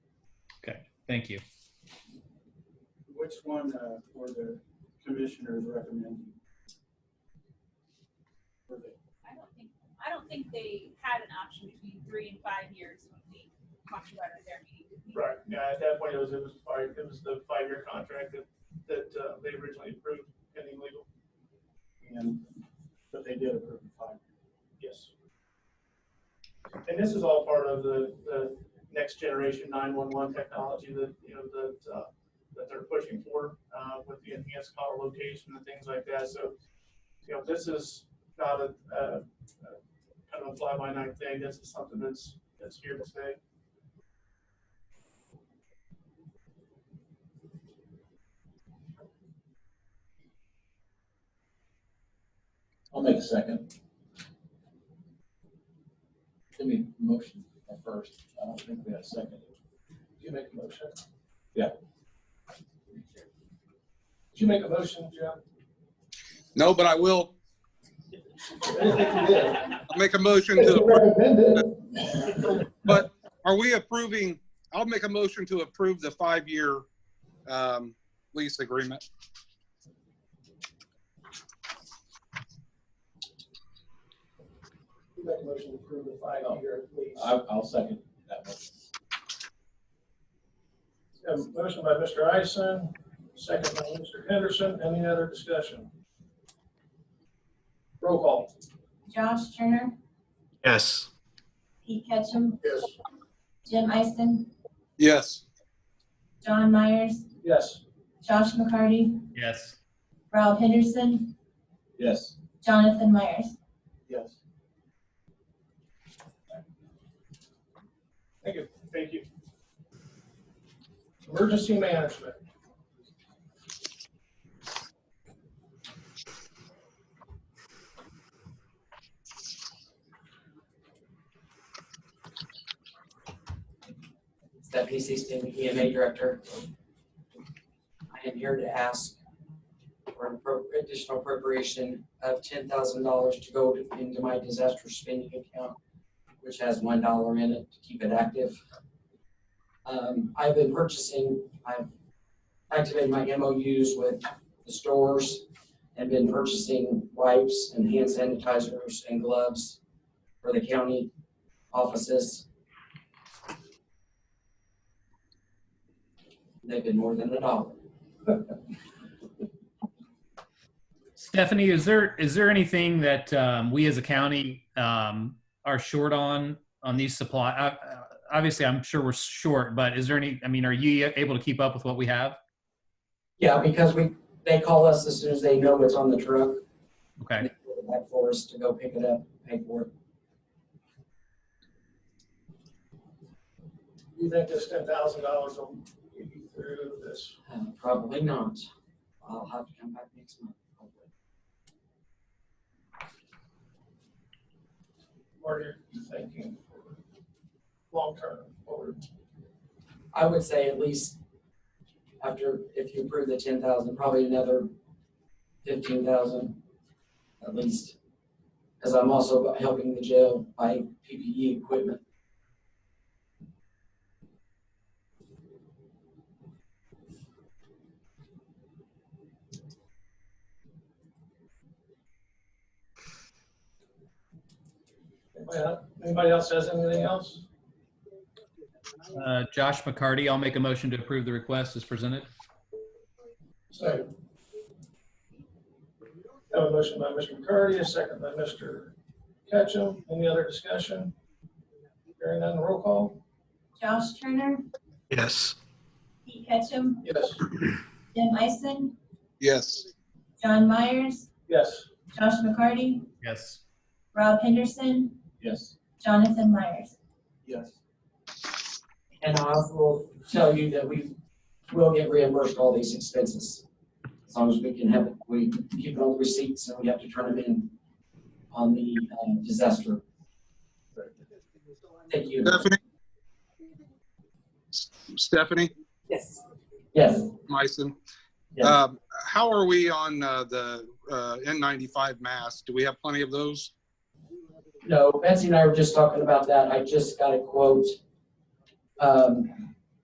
Thank you. Which one uh, were the commissioners recommending? Were they- I don't think, I don't think they had an option between three and five years when we talked about it at their meeting. did we? Right, yeah, at that point, it was, it was five, it was the five-year contract that, that uh, they originally approved pending legal. And, but they did approve the five. Yes. And this is all part of the, the next generation nine-one-one technology that, you know, that, uh, that they're pushing for, uh, with the enhanced caller location and things like that. So, you know, this is not a, uh, uh, kind of a fly-by-night thing. This is something that's, that's here to stay. I'll make a second. Give me a motion first. I don't think we have a second. Did you make a motion? Yeah. Did you make a motion, Jeff? No, but I will. I'll make a motion to, but are we approving, I'll make a motion to approve the five-year um, lease agreement. Make a motion to approve the five-year lease. I'll, I'll second that motion. A motion by Mr. Ison, second by Mr. Henderson. Any other discussion? Roll call. Josh Turner, Yes. Pete Ketchum, Yes. Jim Ison, Yes, John Myers, Yes. Josh McCarty, Yes. Rob Henderson, Yes. Jonathan Myers. Yes. Thank you. Thank you. Emergency management. Stephanie Seaston, EMA Director. I am here to ask for an appro- additional appropriation of ten thousand dollars to go to- into my disaster spending account, which has one dollar in it to keep it active. Um, I've been purchasing, I've activated my MOUs with the stores and been purchasing wipes and hand sanitizers and gloves for the county offices. They've been more than a dollar. Stephanie, is there, is there anything that um, we as a county um, are short on, on these supply? uh, uh, Obviously, I'm sure we're short, but is there any, I mean, are you able to keep up with what we have? Yeah, because we, they call us as soon as they know it's on the truck. Okay, They put it Back for us to go pick it up, pay for it. You think this ten thousand dollars will get you through this? Uh, Probably not. I'll have to come back next month. probably. What are you thinking? Long term, or I would say at least after, if you approve the ten thousand, probably another fifteen thousand at least. Because I'm also helping the jail buy PPE equipment. anybody else- anybody else has anything else? Uh, Josh McCarty, I'll make a motion to approve the request as presented. So. Have a motion by Mr. McCarty, a second by Mr. Ketchum. Any other discussion? Hearing none, roll call. Josh Turner, Yes. Pete Ketchum, Yes. Jim Ison, yes, John Myers, Yes. Josh McCarty, Yes. Rob Henderson, Yes. Jonathan Myers. Yes. And I will tell you that we will get reimbursed all these expenses. As long as we can have, it. we keep all the receipts and we have to turn them in on the um, disaster. Thank you. Stephanie? S- Stephanie Yes. Yes, Meissen, yes. um, how are we on uh, the uh, N95 masks? Do we have plenty of those? No, Betsy and I were just talking about that. I just got a quote um,